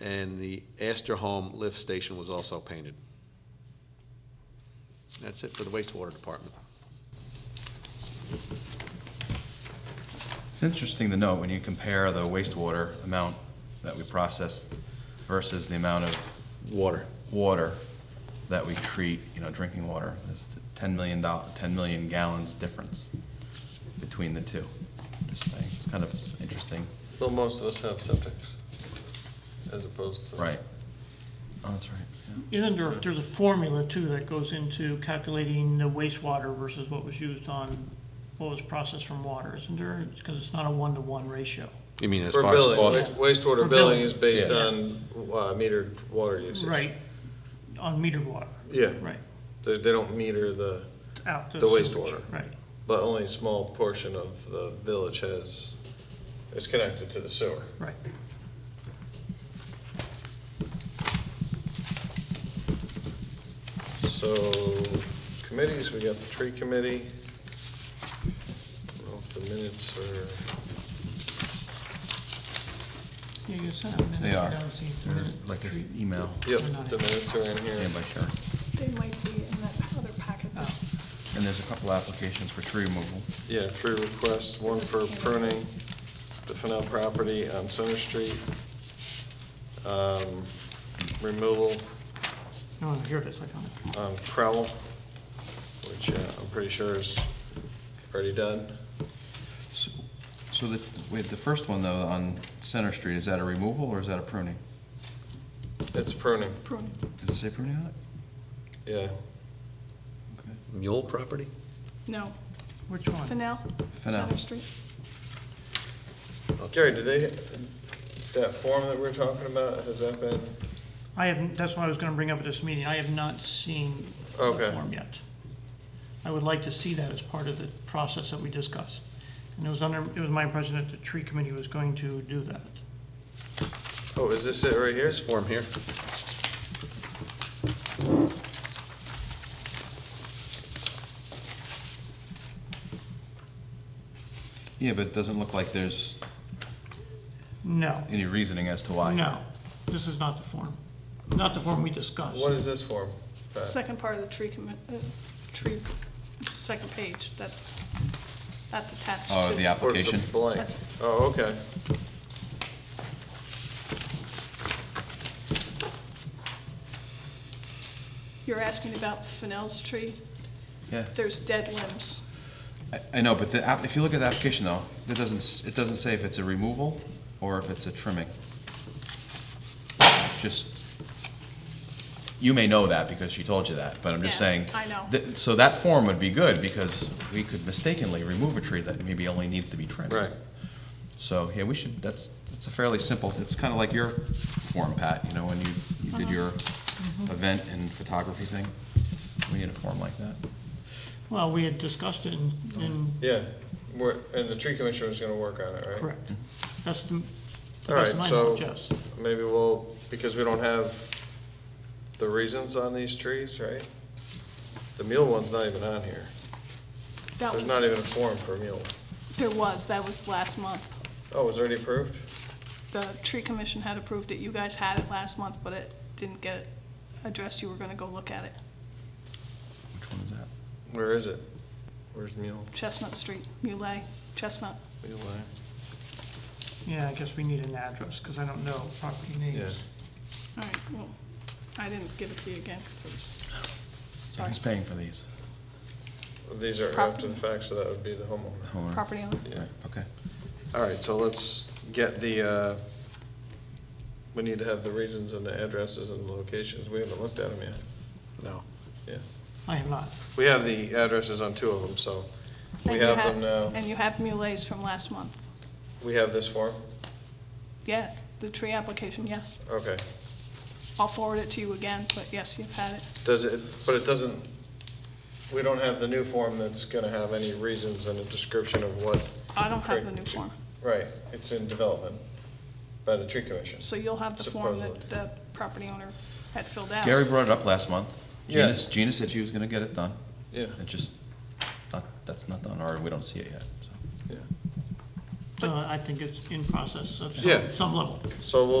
and the Astor Home lift station was also painted. That's it for the wastewater department. It's interesting to note, when you compare the wastewater amount that we process versus the amount of Water. water that we treat, you know, drinking water, there's ten million doll, ten million gallons difference between the two. Just saying, it's kind of s- interesting, Well, most of us have septics, as opposed to. right? Oh, that's right, yeah. Isn't there, there's a formula too that goes into calculating the wastewater versus what was used on, what was processed from water, isn't there? Because it's not a one-to-one ratio. You mean as For far as billing, cost? wa- For wastewater billing billing. is based Yeah. on uh, metered water usage. Right, on metered water, Yeah, right, they, they don't meter the, out the The sewage, wastewater. Right, but only a small portion of the village has, is connected to the sewer. right. So committees, we got the tree committee. I don't know if the minutes are, Yeah, you sent out minutes, They are. I don't see the They're minute Like an treat. email, yep, They're not the in. minutes are in here. and by Sharon. They might be in that other packet. that- Oh, And there's a couple applications for tree removal. Yeah, three requests, one for pruning the Fennell property on Center Street. Um, Removal no, no, here it is, I found it. on Crowell, which uh, I'm pretty sure is already done. So- So the, wait, the first one though, on Center Street, is that a removal or is that a pruning? It's pruning, Pruning. Does it say pruning on it? yeah. Mule property? No, Which one? Fennel, Fennel. Center Street. Uh, Gary, did they, that form that we're talking about, has that been, I haven't, that's what I was gonna bring up at this meeting, I have not seen the Okay. form yet. I would like to see that as part of the process that we discussed. And it was under, it was my impression that the tree committee was going to do that. oh, is this it right here? This form here? Yeah, but it doesn't look like there's No, any reasoning as to why. no, this is not the form, not the form we discussed. What is this form? It's the second part of the tree commit, uh, tree, it's the second page, that's, that's attached to. Oh, the Or it's a application? Blank. That's- Oh, okay. You're asking about Fennel's tree? Yeah. There's dead limbs. I- I know, but the, app- if you look at the application though, it doesn't, s- it doesn't say if it's a removal or if it's a trimming. Just, you may know that because she told you that, but I'm just Yeah, saying. I know. that- So that form would be good because we could mistakenly remove a tree that maybe only needs to be trimmed. Right. So, yeah, we should, that's, that's a fairly simple, it's kind of like your form, Pat, you know, when you, you did your event and photography thing. We need a form like that. Well, we had discussed it in, in, Yeah, we're, and the tree commissioner's gonna work on it, right? correct. That's the, All that's right, my so knowledge, yes. maybe we'll, because we don't have the reasons on these trees, right? The mule one's not even on here. That There's not was, even a form for mule. there was, that was last month. Oh, it's already approved? The tree commission had approved it, you guys had it last month, but it didn't get addressed, you were gonna go look at it. Which one is that? Where is it? Where's mule? Chestnut Street, Muley, Chestnut. Mule Lane. Yeah, I guess we need an address, because I don't know property names. All right, well, I didn't give it to you again, because it was, So Who's paying for these? These are after the fact, so that would be the homeowner. Homeowner? property owner. Yeah. Okay. All right, so let's get the, uh, we need to have the reasons and the addresses and locations. We haven't looked at them yet. No. Yeah. I have not. We have the addresses on two of them, so And we you have them now. And you have mulets from last month. We have this form? Yeah, the tree application, yes. Okay. I'll forward it to you again, but yes, you've had it. Does it, but it doesn't, we don't have the new form that's gonna have any reasons and a description of what, I don't have the new form. right, it's in development by the tree commission. So you'll have the form that Supposedly. the property owner had filled out. Gary brought it up last month. Yeah. Gina, Gina said she was gonna get it done. Yeah, It just, not, that's not done, or we don't see it yet, so. yeah. Uh, I think it's in process of Yeah. some, some level. So we'll